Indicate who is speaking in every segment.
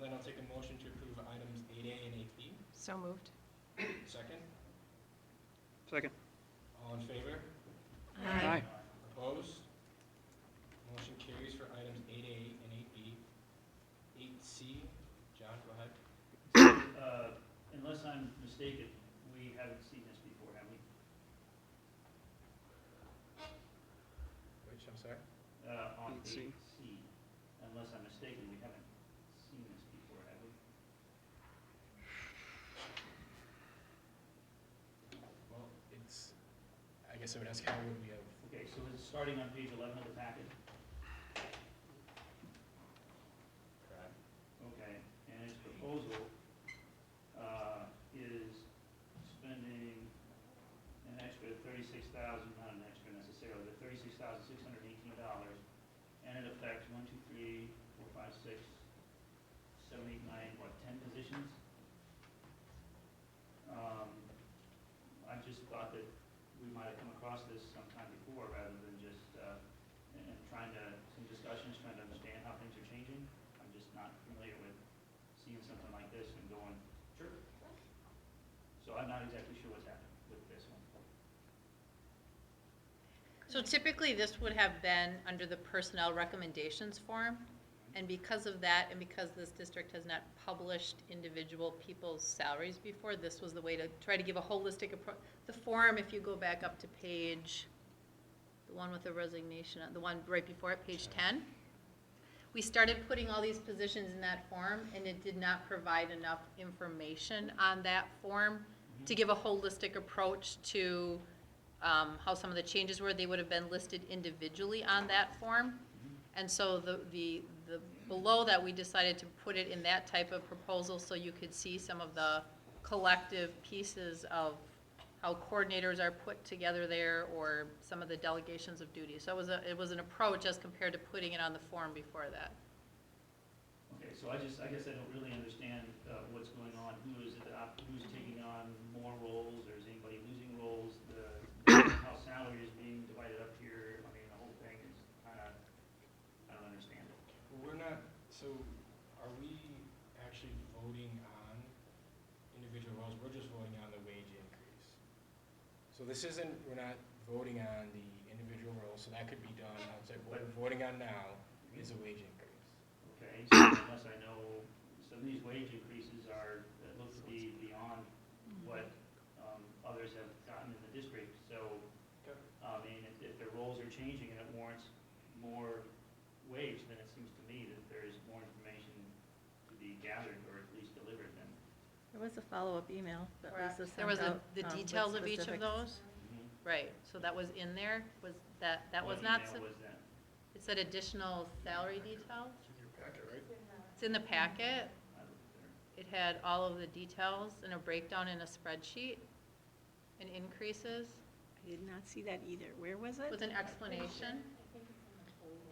Speaker 1: Then I'll take a motion to approve items eight A and eight B.
Speaker 2: So moved.
Speaker 1: Second,
Speaker 3: Second.
Speaker 1: all in favor?
Speaker 3: Aye.
Speaker 1: Opposed? Motion carries for items eight A and eight B. Eight C, John, go ahead.
Speaker 4: Uh, Unless I'm mistaken, we haven't seen this before, have we?
Speaker 1: Which, I'm sorry?
Speaker 4: Uh, On
Speaker 3: Let's see.
Speaker 4: eight C, unless I'm mistaken, we haven't seen this before, have we?
Speaker 1: Well, it's, I guess I would ask how would we have?
Speaker 4: Okay, so it's starting on page 11 of the packet, okay, and its proposal uh, is spending an extra 36,000, not an extra necessarily, but $36,618, and it affects one, two, three, four, five, six, seven, eight, nine, what, 10 positions? Um, I just thought that we might have come across this sometime before, rather than just, uh, and and trying to, some discussions, trying to understand how things are changing. I'm just not familiar with seeing something like this and going, sure. So I'm not exactly sure what's happening with this one.
Speaker 5: So typically, this would have been under the personnel recommendations form, and because of that, and because this district has not published individual people's salaries before, this was the way to try to give a holistic approach. The form, if you go back up to page, the one with the resignation, the one right before it, page ten, we started putting all these positions in that form, and it did not provide enough information on that form to give a holistic approach to um, how some of the changes were, they would have been listed individually on that form. And so the, the, the, below that, we decided to put it in that type of proposal so you could see some of the collective pieces of how coordinators are put together there or some of the delegations of duty. So it was a, it was an approach as compared to putting it on the form before that.
Speaker 4: Okay, so I just, I guess I don't really understand uh, what's going on, who is, it op- who's taking on more roles, or is anybody losing roles? The, how salary is being divided up here, I mean, the whole thing is kind of, I don't understand it.
Speaker 1: Well, we're not, so are we actually voting on individual roles? We're just voting on the wage increase. So this isn't, we're not voting on the individual roles, so that could be done outside. What we're voting on now is a wage increase.
Speaker 4: Okay, so unless I know, some of these wage increases are, that look to be beyond what um, others have gotten in the district, so,
Speaker 1: Okay.
Speaker 4: I mean, if, if their roles are changing and it warrants more wage, then it seems to me that there is more information to be gathered or at least delivered than.
Speaker 6: There was a follow-up email that
Speaker 5: Correct.
Speaker 6: Lisa sent out.
Speaker 5: There was a- the
Speaker 6: um, with
Speaker 5: details of each of
Speaker 6: specifics.
Speaker 5: those, right, so that was in there, was that, that was
Speaker 4: What
Speaker 5: not,
Speaker 4: email
Speaker 5: sub-
Speaker 4: was that?
Speaker 5: it said additional salary details?
Speaker 1: in your packet, right?
Speaker 5: It's in the packet.
Speaker 4: I looked there.
Speaker 5: It had all of the details and a breakdown in a spreadsheet and increases
Speaker 6: I did not see that either. Where was it?
Speaker 5: with an explanation.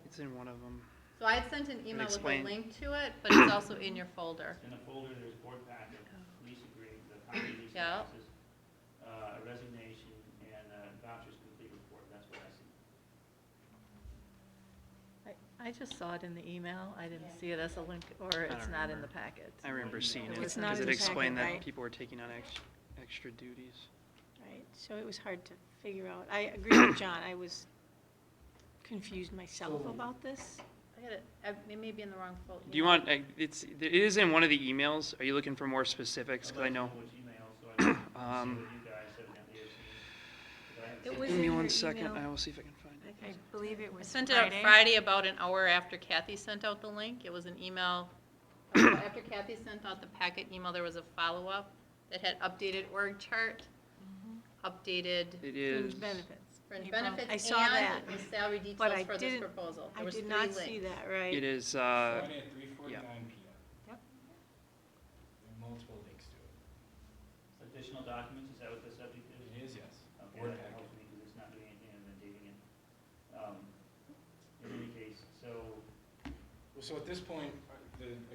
Speaker 3: It's in one of them.
Speaker 5: So I had sent an email with a
Speaker 3: explain.
Speaker 5: link to it, but it's also in your folder.
Speaker 4: In the folder, there's board packet, lease agreement, the county lease
Speaker 5: Yeah.
Speaker 4: taxes, uh, resignation, and uh, vouchers complete report, that's what I see.
Speaker 6: I just saw it in the email. I didn't
Speaker 5: Yeah.
Speaker 6: see it as a link, or
Speaker 3: don't
Speaker 6: it's not in
Speaker 3: remember.
Speaker 6: the packet.
Speaker 3: I remember seeing it,
Speaker 6: It was
Speaker 3: because
Speaker 6: not in
Speaker 3: it
Speaker 6: the
Speaker 3: explained
Speaker 6: packet,
Speaker 3: that
Speaker 6: right?
Speaker 3: people were taking on ex- extra duties.
Speaker 7: Right, so it was hard to figure out. I agree with John, I was confused myself
Speaker 4: So-
Speaker 7: about this.
Speaker 5: I got it, I- it may be in the wrong folder.
Speaker 3: Do you want, uh, it's, it is in one of the emails. Are you looking for more specifics?
Speaker 4: I'd
Speaker 3: Because I
Speaker 4: like to
Speaker 3: know,
Speaker 4: Which email, so I can see
Speaker 3: Um,
Speaker 4: what you guys evidently have seen. 'cause I haven't
Speaker 2: It
Speaker 4: seen
Speaker 2: was
Speaker 3: give me
Speaker 2: in
Speaker 3: one
Speaker 2: your
Speaker 3: second.
Speaker 2: email.
Speaker 3: I will see if I can find it.
Speaker 2: I believe it
Speaker 5: I
Speaker 2: was
Speaker 5: sent it out Friday about an hour after Kathy sent out the link. It was an email. After Kathy sent out the packet email, there was a follow-up that had updated org chart,
Speaker 6: Mm-hmm.
Speaker 5: updated
Speaker 3: It is,
Speaker 7: Fringe benefits.
Speaker 5: fringe
Speaker 7: April.
Speaker 5: benefits,
Speaker 7: I saw
Speaker 5: and
Speaker 7: that.
Speaker 5: the salary
Speaker 7: I
Speaker 5: details for this
Speaker 7: didn't-
Speaker 5: proposal. There
Speaker 7: I
Speaker 5: was
Speaker 7: did
Speaker 5: three
Speaker 7: not see
Speaker 5: links.
Speaker 7: that, right?
Speaker 3: it is, uh,
Speaker 1: Friday at three forty-nine P
Speaker 2: Yep.
Speaker 1: M. There are multiple links to it.
Speaker 4: Additional documents, is that what the subject is?
Speaker 1: It is, yes.
Speaker 4: Okay,
Speaker 1: Word
Speaker 4: that
Speaker 1: packet.
Speaker 4: helps me, because it's not doing anything other than dating it. Um, In any case, so,
Speaker 1: Well, so at this point, uh, the,